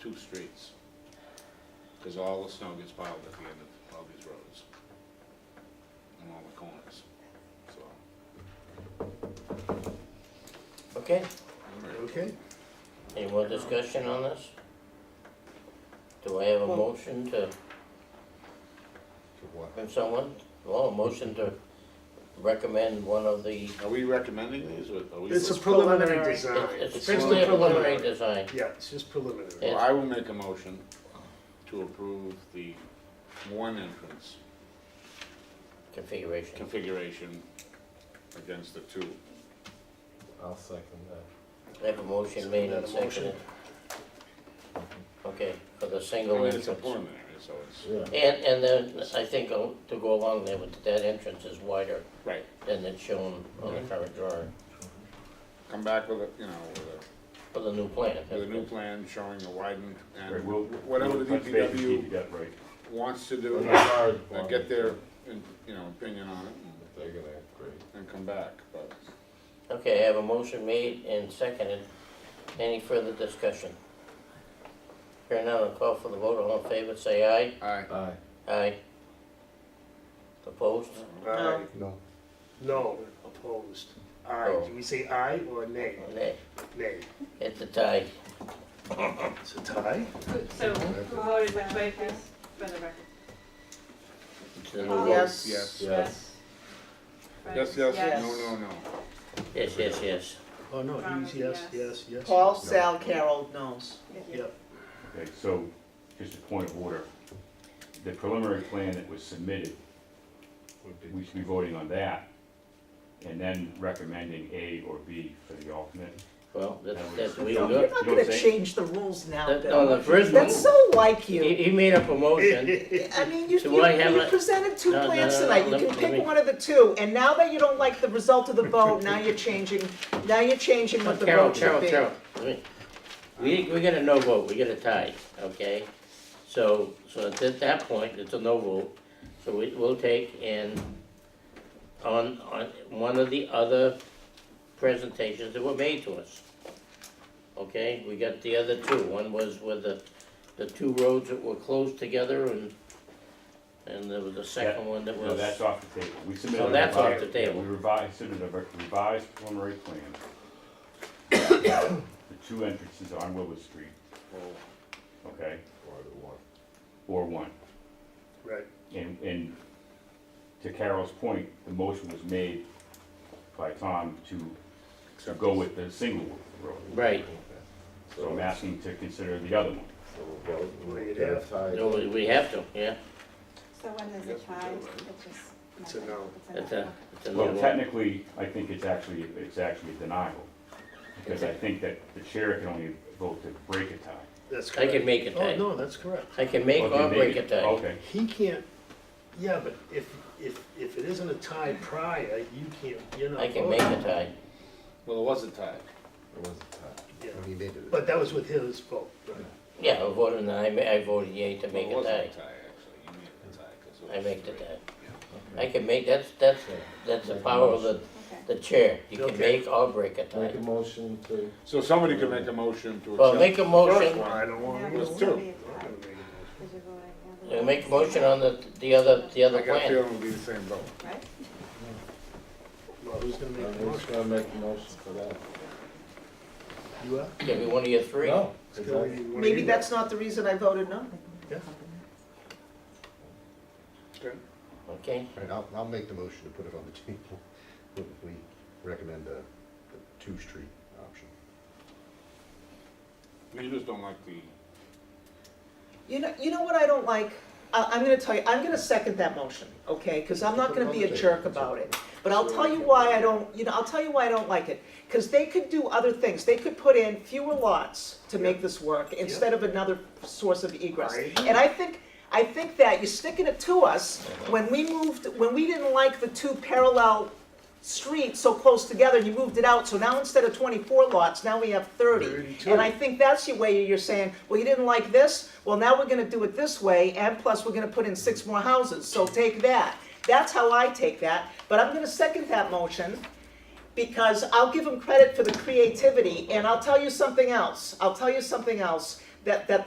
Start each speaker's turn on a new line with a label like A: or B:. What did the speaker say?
A: two streets. Because all the snow gets piled at the end of all these roads. And all the corners, so.
B: Okay,
C: Okay,
B: any more discussion on this? Do I have a motion to,
C: to what?
B: from someone, well, a motion to recommend one of the,
A: Are we recommending these, or are we?
C: It's a
A: Well,
C: preliminary
D: preliminary.
C: design.
B: it's it's
C: Uh, It's
B: simply a
C: just
B: preliminary design.
C: Yeah, it's just preliminary.
B: Yeah.
A: I will make a motion to approve the one entrance
B: configuration.
A: configuration against the two.
E: I'll second that.
B: I have a motion made and
C: Is that a motion?
B: seconded. Okay, for the
A: I
B: single
A: mean, it's
B: entrance.
A: a preliminary, so it's,
E: Yeah.
B: And, and then I think I'll- to go along there with that entrance is wider
A: right,
B: than it's shown on the current drawing,
A: come back with a, you know, with a
B: for the new plan.
A: with a new plan showing a widened and
F: Right, we'll-
A: whatever
F: we'll
A: the
F: touch base with
A: DPW
F: DPW, right.
A: wants to do, uh,
E: I
A: get their, you know, opinion on it and-
E: They're gonna agree.
A: and come back, but.
B: Okay, I have a motion made and seconded. Any further discussion? Here now, I'll call for the vote. All in favor, say aye.
A: Aye.
E: Aye.
B: Aye. Opposed?
C: Aye.
E: No.
C: No, opposed. Aye, do we say aye or nay?
B: Nay.
C: Nay.
B: It's a tie.
C: It's a tie?
D: So who voted which way, Chris, for the record?
A: We'll vote
D: Yes.
A: Yes,
E: Yes.
D: Right.
A: yes, yes, no, no, no.
B: Yes, yes, yes.
C: Oh, no, he was yes, yes,
D: Yes.
C: yes.
G: Paul, Sal, Carol, knows.
D: Thank you.
C: Yep,
F: Okay, so just a point of order. The preliminary plan that was submitted, we should be voting on that and then recommending A or B for the alternate.
B: Well, that's,
F: That was-
B: that's, we
F: You
B: don't
F: know
B: do
G: You're
B: it.
G: not
F: what I'm
G: gonna
F: saying?
G: change the rules now,
B: That- No,
G: Bill.
B: the first
G: That's
B: one,
G: so like
B: he,
G: you.
B: he made up a motion.
G: I mean, you,
B: So
G: you,
B: why have
G: you
B: a-
G: presented two
B: No, no,
G: plans
B: no, no,
G: tonight, you
B: let me-
G: can
B: let me-
G: pick one of the two, and now that you don't like the result of the vote, now you're changing, now you're changing what the
B: Carol,
G: vote
B: Carol,
G: should be.
B: Carol. Let me- We, we got a no vote, we got a tie, okay? So, so at that- that point, it's a no vote, so we, we'll take and on, on one of the other presentations that were made to us. Okay, we got the other two, one was with the, the two roads that were closed together and, and there was a second one that was.
F: No, that's off the table. We submitted.
B: So
F: a
B: that's off
F: revised-
B: the table.
F: yeah, We revised, submitted a revised preliminary plan. The two entrances on Willow Street,
A: Well,
F: okay? Or one.
C: right.
F: And, and to Carol's point, the motion was made by Tom to, to go with the single road.
B: Right,
F: So I'm asking to consider the other one.
C: We'd have-
B: no, we- we have to, yeah,
D: So when there's a tie, it's just.
C: It's a no.
D: It's
B: it's
D: a no.
B: a, it's a no
F: Well,
B: vote.
F: technically, I think it's actually, it's actually a denial, because I think that the chair can only vote to break a tie.
C: That's
B: I
C: correct.
B: can make a tie.
C: Oh, no, that's correct.
B: I can make
F: Okay,
B: or break a
F: maybe.
B: tie.
F: Okay,
C: He can't, yeah, but if, if, if it isn't a tie prior, you can't, you're not
B: I can make a
C: voting.
B: tie.
A: Well, it was a tie.
E: It was a tie.
C: Yeah. But that was with his vote, right?
B: Yeah, I voted, I, ma- I voted yay to make
A: Well,
B: a tie.
A: It wasn't a tie, actually, you made it a tie. 'cause it
B: I
A: was
B: make the
A: three.
B: tie. I
E: Okay.
B: can make, that's, that's, that's the
E: Make a
B: power of the,
D: Okay.
B: the chair. You can
C: Okay.
B: make or break a tie.
E: Make a motion to, uh,
A: So somebody could make a motion to accept.
B: Well, make a
C: First
B: motion,
C: one, I don't
D: Now
C: want
D: it's
C: to.
A: Let's
D: gonna
A: do.
D: be a tie,
C: I'm gonna make a motion.
D: because you're voting on the
B: uh, make a
D: others.
B: motion on the, the other, the other
A: I got a
B: plan.
A: feeling it'll be the same vote.
D: Right?
C: Well, who's gonna make the
E: I'm
C: motion?
E: just gonna make a motion for that.
C: You are?
B: Give me one of your three.
E: No.
C: It's gonna be one of
G: Maybe
C: you.
G: that's not the reason I voted no.
B: Okay,
H: All right, I'll, I'll make the motion to put it on the table. We recommend the, the two-street option.
A: You just don't like the,
G: You know, you know what I don't like? I, I'm gonna tell you, I'm gonna second that motion, okay? Because I'm not gonna be a jerk about it. But I'll tell you why I don't, you know, I'll tell you why I don't like it. Because they could do other things. They could put in fewer lots to make this work instead of another source of egress.
C: I-
G: And I think, I think that you're sticking it to us when we moved, when we didn't like the two parallel streets so close together, you moved it out. So now instead of 24 lots, now we have 30.
C: 32.
G: And I think that's your way, you're saying, well, you didn't like this, well, now we're gonna do it this way, and plus, we're gonna put in six more houses, so take that. That's how I take that, but I'm gonna second that motion, because I'll give them credit for the creativity, and I'll tell you something else, I'll tell you something else, that, that